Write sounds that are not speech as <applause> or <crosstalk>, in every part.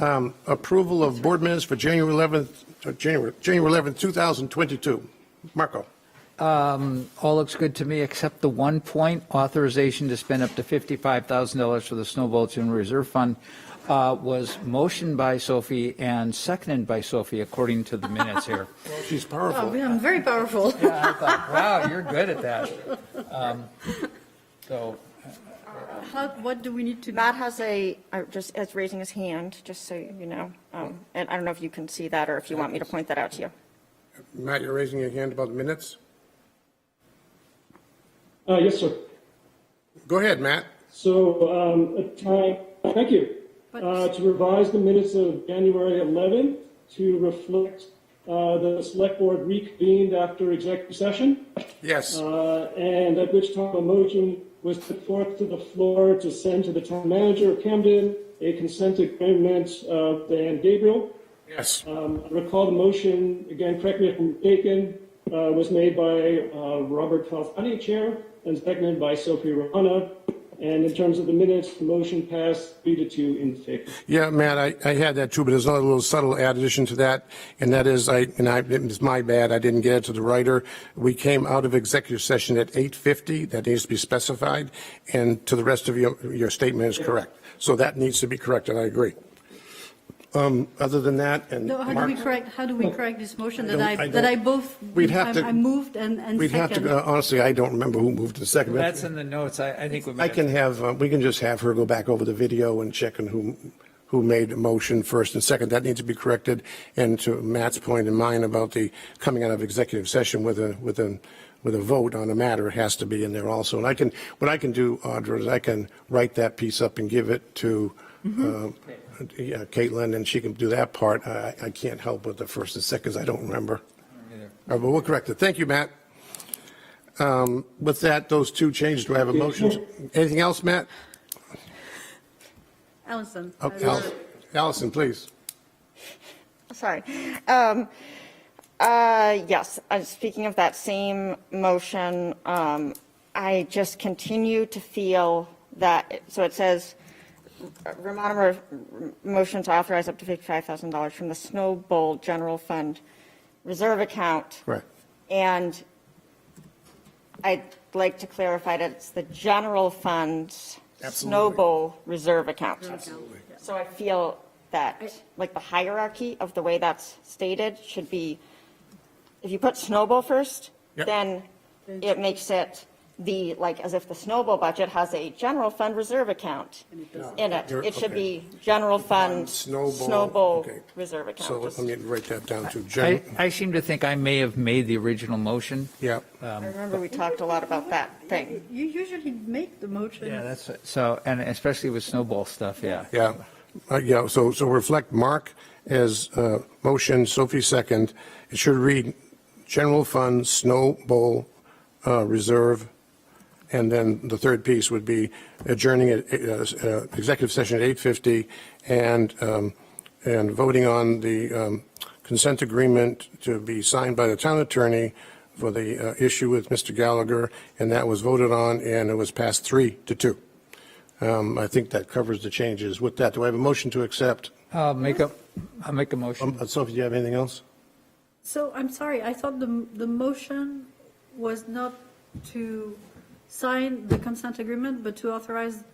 Um, Approval of board minutes for January 11th, uh, January, January 11th, 2022. Marco, Um, All looks good to me, except the one point, authorization to spend up to $55,000 for the Snow Bulletin Reserve Fund uh, was motioned by Sophie and seconded by Sophie, according to the minutes here. she's Oh, powerful. yeah, I'm very powerful. <laughs> I thought, wow, you're good at that. Um, So, How, what do we need to do? Matt has a, uh, just, is raising his hand, just so you know. Um, And I don't know if you can see that or if you want me to point that out to you. Matt, you're raising your hand about the minutes? Uh, yes, sir. Go ahead, Matt. So, um, a time, thank you. Uh, to revise the minutes of January 11th to reflect, uh, the select board reconvened after executive session, Yes. uh, and at which time a motion was put forth to the floor to send to the town manager of Camden a consent agreement of the Ann Gabriel. Yes. uh. Um, I recall the motion, again, correct me if I'm mistaken, uh, was made by uh, Robert Falzani, Chair, and seconded by Sophie Rahana. And in terms of the minutes, the motion passed three to two in favor. Yeah, Matt, I, I had that too, but there's another little subtle addition to that, and that is, I, and I, it's my bad, I didn't get it to the writer. We came out of executive session at 8:50, that needs to be specified, and to the rest of your, your statement is correct. So that needs to be corrected, I agree. Um, other than that, and No, how do we Mark, correct, how do we correct this motion that don't- I I, don't- that I both, We'd have I'm- to- I moved and, and we'd have second? to, honestly, I don't remember who moved to second. but that's in the notes, I I think we I might can have, have, uh, we can just have her go back over the video and check on who, who made a motion first and second. That needs to be corrected. And to Matt's point and mine about the coming out of executive session with a, with a, with a vote on a matter, it has to be in there also. And I can, what I can do, Audra, is I can write that piece up and give it to uh, yeah, Caitlin, and she can do that part. I, I can't help with the first and seconds, I don't remember. All right, but we'll correct it. Thank you, Matt. Um, With that, those two changes, do I have a motion? Anything else, Matt? Allison. I Oh, will- Al- Allison, please. Sorry. Um, uh, Yes, uh, speaking of that same motion, um, I just continue to feel that, so it says, Ramona, Mer- motion to authorize up to $55,000 from the Snow Bowl General Fund Reserve Account. Correct. And I'd like to clarify that it's the general fund's Absolutely. snowball reserve account. So I feel that, like, the hierarchy of the way that's stated should be, if you put snowball first, Yep. then it makes it the, like, as if the snowball budget has a general fund reserve account in it. You're- It should okay. be general fund, Snow Bowl, Um, snowball okay. reserve account. So let Just- me write that down to I Jen. I seem to think I may have made the original motion. Yeah. I remember we talked a lot about that thing. You usually make the motion. Yeah, that's, so, and especially with snowball stuff, yeah. Yeah, Uh, yeah, so, so reflect Mark as uh, motion, Sophie second. It should read general fund, snow bowl, uh, reserve, and then the third piece would be adjourning at, uh, uh, executive session at 8:50 and, um, and voting on the um, consent agreement to be signed by the town attorney for the uh, issue with Mr. Gallagher, and that was voted on, and it was passed three to two. Um, I think that covers the changes. With that, do I have a motion to accept? I'll Uh, make a, I'll make a motion. Um, Sophie, do you have anything else? So I'm sorry, I thought the, the motion was not to sign the consent agreement, but to authorize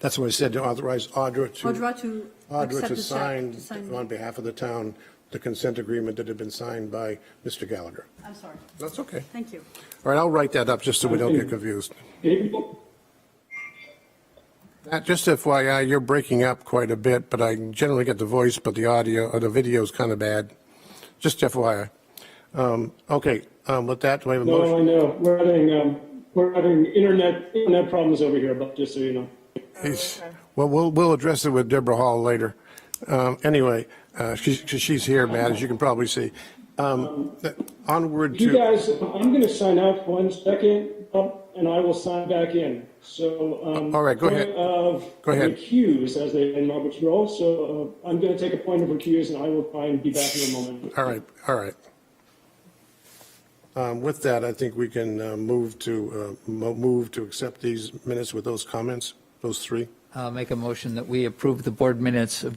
That's what I said, to authorize Audra to. Audra to Audra to accept the check. sign to sign- on behalf of the town, the consent agreement that had been signed by Mr. Gallagher. I'm sorry, That's okay. thank you. All right, I'll write that up just so we don't get confused. Gabriel? Matt, just FYI, you're breaking up quite a bit, but I generally get the voice, but the audio, or the video's kind of bad. Just FYI. Um, Okay, um, with that, do I have a No, I motion? know, we're having, um, we're having internet, internet problems over here, but just so you know. He's- Well, we'll, we'll address it with Deborah Hall later. Um, Anyway, uh, she's, 'cause she's here, Matt, as you can probably see. Um, th- Onward You to, guys, I'm going to sign out for one second, um, and I will sign back in. So, um, All right, go ahead. point Of Go ahead. recuse, as they in Robert's role. So, uh, I'm going to take a point of recuse, and I will try and be back in a moment. all right, all right. Um, With that, I think we can uh, move to, uh, mo- move to accept these minutes with those comments, those three. I'll make a motion that we approve the board minutes of